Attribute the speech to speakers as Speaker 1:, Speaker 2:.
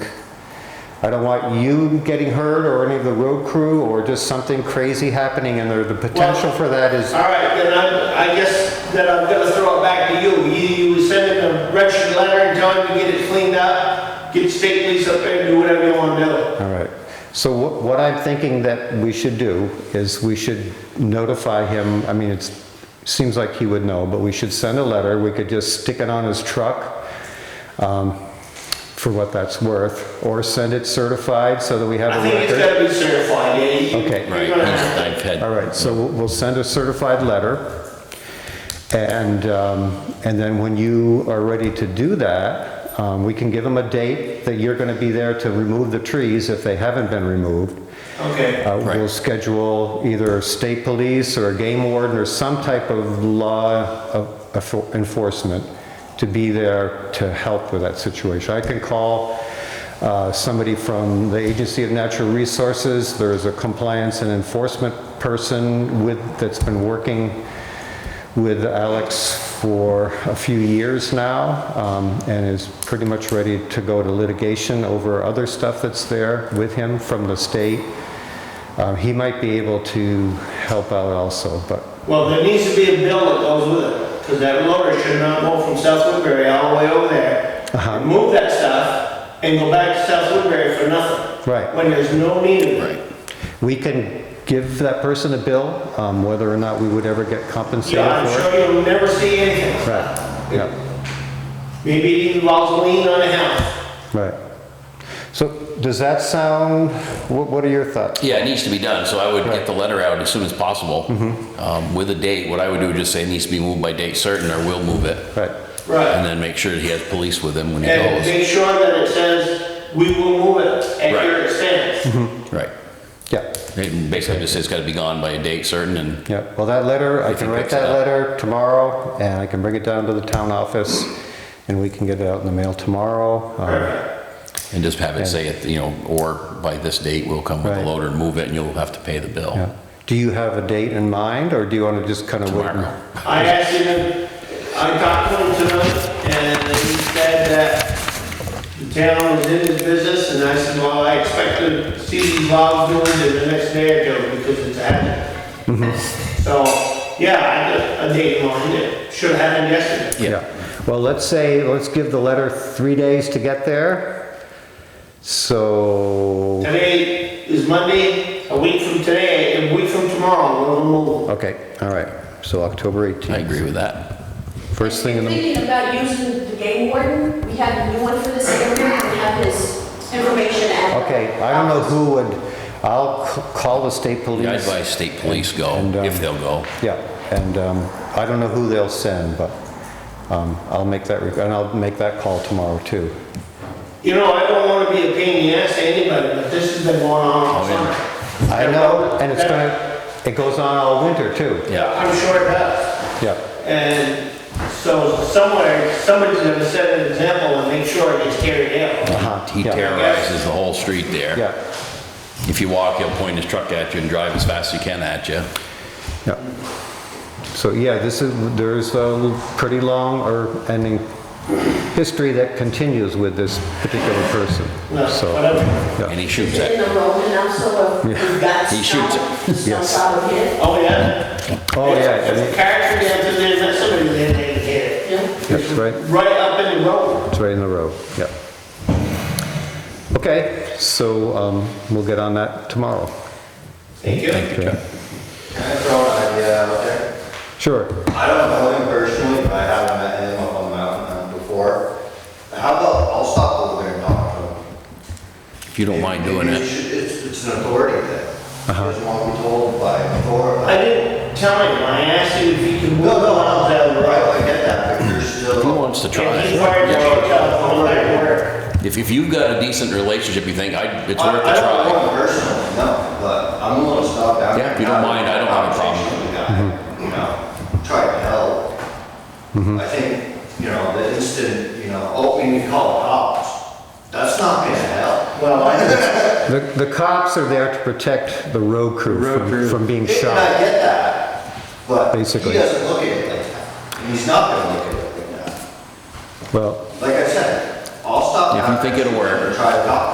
Speaker 1: I don't want you getting hurt or any of the road crew or just something crazy happening and there, the potential for that is,
Speaker 2: All right, then I, I guess that I'm gonna throw it back to you. You, you send him a registered letter and tell him to get it cleaned up, get state police up there, do whatever you wanna do.
Speaker 1: all right. So what, what I'm thinking that we should do is we should notify him, I mean, it's, seems like he would know, but we should send a letter, we could just stick it on his truck, um, for what that's worth, or send it certified so that we have
Speaker 2: I
Speaker 1: a
Speaker 2: think it's
Speaker 1: record.
Speaker 2: gotta be certified, yeah. you-
Speaker 1: Okay.
Speaker 2: you're
Speaker 3: Right,
Speaker 2: gonna have to-
Speaker 3: I've had,
Speaker 1: All right, so we'll- we'll send a certified letter, and, um, and then when you are ready to do that, um, we can give them a date that you're gonna be there to remove the trees if they haven't been removed.
Speaker 2: Okay,
Speaker 1: Uh, We'll
Speaker 3: Right.
Speaker 1: schedule either state police or a game warden or some type of law of- of enforcement to be there to help with that situation. I can call uh, somebody from the Agency of Natural Resources. There's a compliance and enforcement person with, that's been working with Alex for a few years now um, and is pretty much ready to go to litigation over other stuff that's there with him from the state. Um, He might be able to help out also, but,
Speaker 2: well, there needs to be a bill that goes with it, cause that loader should not go from South Woodbury all the way over there. Remove that stuff and go back to South Woodbury for nothing.
Speaker 1: Right.
Speaker 2: When there's no need of
Speaker 3: right.
Speaker 2: it.
Speaker 1: we can give that person a bill, um, whether or not we would ever get compensated
Speaker 2: Yeah, I'm
Speaker 1: for it.
Speaker 2: sure you'll never see anything.
Speaker 1: Right, yeah,
Speaker 2: Maybe it involves a lien on a house.
Speaker 1: right. So does that sound, what what are your thoughts?
Speaker 3: Yeah, it needs to be done, so I would get the letter out as soon as possible
Speaker 1: Mm-hmm.
Speaker 3: um, with a date. What I would do is just say it needs to be moved by date certain, or we'll move it.
Speaker 1: Right,
Speaker 3: And
Speaker 2: Right.
Speaker 3: then make sure that he has police with him when he
Speaker 2: And
Speaker 3: goes.
Speaker 2: make sure that it says, we will move it at
Speaker 3: Right. Mm-hmm.
Speaker 2: your expense.
Speaker 3: Right.
Speaker 1: yeah,
Speaker 3: It Basically just says it's gotta be gone by a date certain and,
Speaker 1: yeah. Well, that letter, I
Speaker 3: If he
Speaker 1: can write
Speaker 3: picks it
Speaker 1: that
Speaker 3: up.
Speaker 1: letter tomorrow, and I can bring it down to the town office, and we can get it out in the mail tomorrow. Um,
Speaker 2: Perfect.
Speaker 3: and just have it say, it, you know, or by this date, we'll come with a
Speaker 1: Right.
Speaker 3: loader and move it and you'll have to pay the
Speaker 1: yeah.
Speaker 3: bill.
Speaker 1: Do you have a date in mind, or do you want to just kind of wait? and-
Speaker 3: Tomorrow.
Speaker 2: I asked him, I talked to him tonight, and he said that the town was in his business, and I said, well, I expect to see these logs doing in the next day or two, because it's a hazard.
Speaker 3: Mm-hmm.
Speaker 2: So, yeah, I got a date in mind, it should have happened yesterday.
Speaker 1: Yeah, well, let's say, let's give the letter three days to get there. So,
Speaker 2: Today is Monday, a week from today, a week from tomorrow, we'll move.
Speaker 1: okay, all right, so October
Speaker 3: I
Speaker 1: 18th.
Speaker 3: agree with that.
Speaker 1: First thing in the,
Speaker 4: Thinking about using the game warden, we have a new one for this area, we have his information at.
Speaker 1: okay, I don't know who would, I'll c- call the state police.
Speaker 3: I'd advise state police go,
Speaker 1: And, um,
Speaker 3: if they'll go.
Speaker 1: Yeah, and um, I don't know who they'll send, but um, I'll make that, re- and I'll make that call tomorrow too.
Speaker 2: You know, I don't wanna be a pain in the ass to anybody, but this has been going on all
Speaker 3: Oh, yeah.
Speaker 2: summer.
Speaker 1: I know, and it's gonna, it goes on all winter too.
Speaker 2: Yeah, I'm sure it does.
Speaker 1: Yeah,
Speaker 2: And so somewhere, somebody's gonna set an example and make sure it gets carried out.
Speaker 1: uh-huh,
Speaker 3: He
Speaker 1: yeah,
Speaker 3: terrorizes the whole street there.
Speaker 1: Yeah,
Speaker 3: If you walk, he'll point his truck at you and drive as fast as he can at you.
Speaker 1: Yeah. So, yeah, this is, there's a pretty long or ending history that continues with this particular person,
Speaker 2: No,
Speaker 1: so.
Speaker 2: whatever.
Speaker 3: And he shoots
Speaker 4: In
Speaker 3: it.
Speaker 4: the road, and I'm sort of, we've got
Speaker 3: He shoots
Speaker 4: some, some
Speaker 1: Yes.
Speaker 4: sort of hit.
Speaker 2: Oh, yeah?
Speaker 1: Oh, yeah, I
Speaker 2: There's
Speaker 1: mean,
Speaker 2: a Character down to there, that's somebody that they hit.
Speaker 4: Yeah.
Speaker 1: that's right,
Speaker 2: Right up in the road.
Speaker 1: it's right in the road, yeah. Okay, so um, we'll get on that tomorrow.
Speaker 2: Thank you.
Speaker 3: Thank you, Chuck.
Speaker 5: Can I throw an idea out there?
Speaker 1: Sure,
Speaker 5: I don't know him personally, but I have met him up on the mountain uh, before. How about, I'll stop over there and talk to him.
Speaker 3: If you don't mind doing
Speaker 5: Maybe
Speaker 3: it. Uh-huh.
Speaker 5: you should- It's, it's an authority thing. He doesn't want to be told by authority.
Speaker 2: I didn't tell him, I asked him if he could move
Speaker 5: No, no,
Speaker 2: on
Speaker 5: no,
Speaker 2: out down the
Speaker 5: right,
Speaker 2: road.
Speaker 5: I get that, but you're still.
Speaker 3: He wants to try.
Speaker 2: And he's fired the
Speaker 3: Yeah.
Speaker 2: telephone back to work.
Speaker 3: If, if you've got a decent relationship, you think, I, it's
Speaker 5: I-
Speaker 3: worth
Speaker 5: I
Speaker 3: a
Speaker 5: don't know
Speaker 3: try.
Speaker 5: him personally, no, but I'm willing to stop down.
Speaker 3: Yeah, if you don't mind, I don't have a problem.
Speaker 5: You know, try to help.
Speaker 3: Mm-hmm.
Speaker 5: I think, you know, the instant, you know, oh, we need to call the cops, that's not gonna help.
Speaker 2: Well, I
Speaker 1: the the cops are there to protect the road crew from- from being
Speaker 5: And
Speaker 1: shot.
Speaker 5: I get that, but he
Speaker 1: Basically.
Speaker 5: doesn't look at it like that, and he's not gonna look at it like that.
Speaker 1: Well,
Speaker 5: Like I said, I'll stop.
Speaker 3: If you
Speaker 5: down
Speaker 3: think it'll work.
Speaker 5: and Try to talk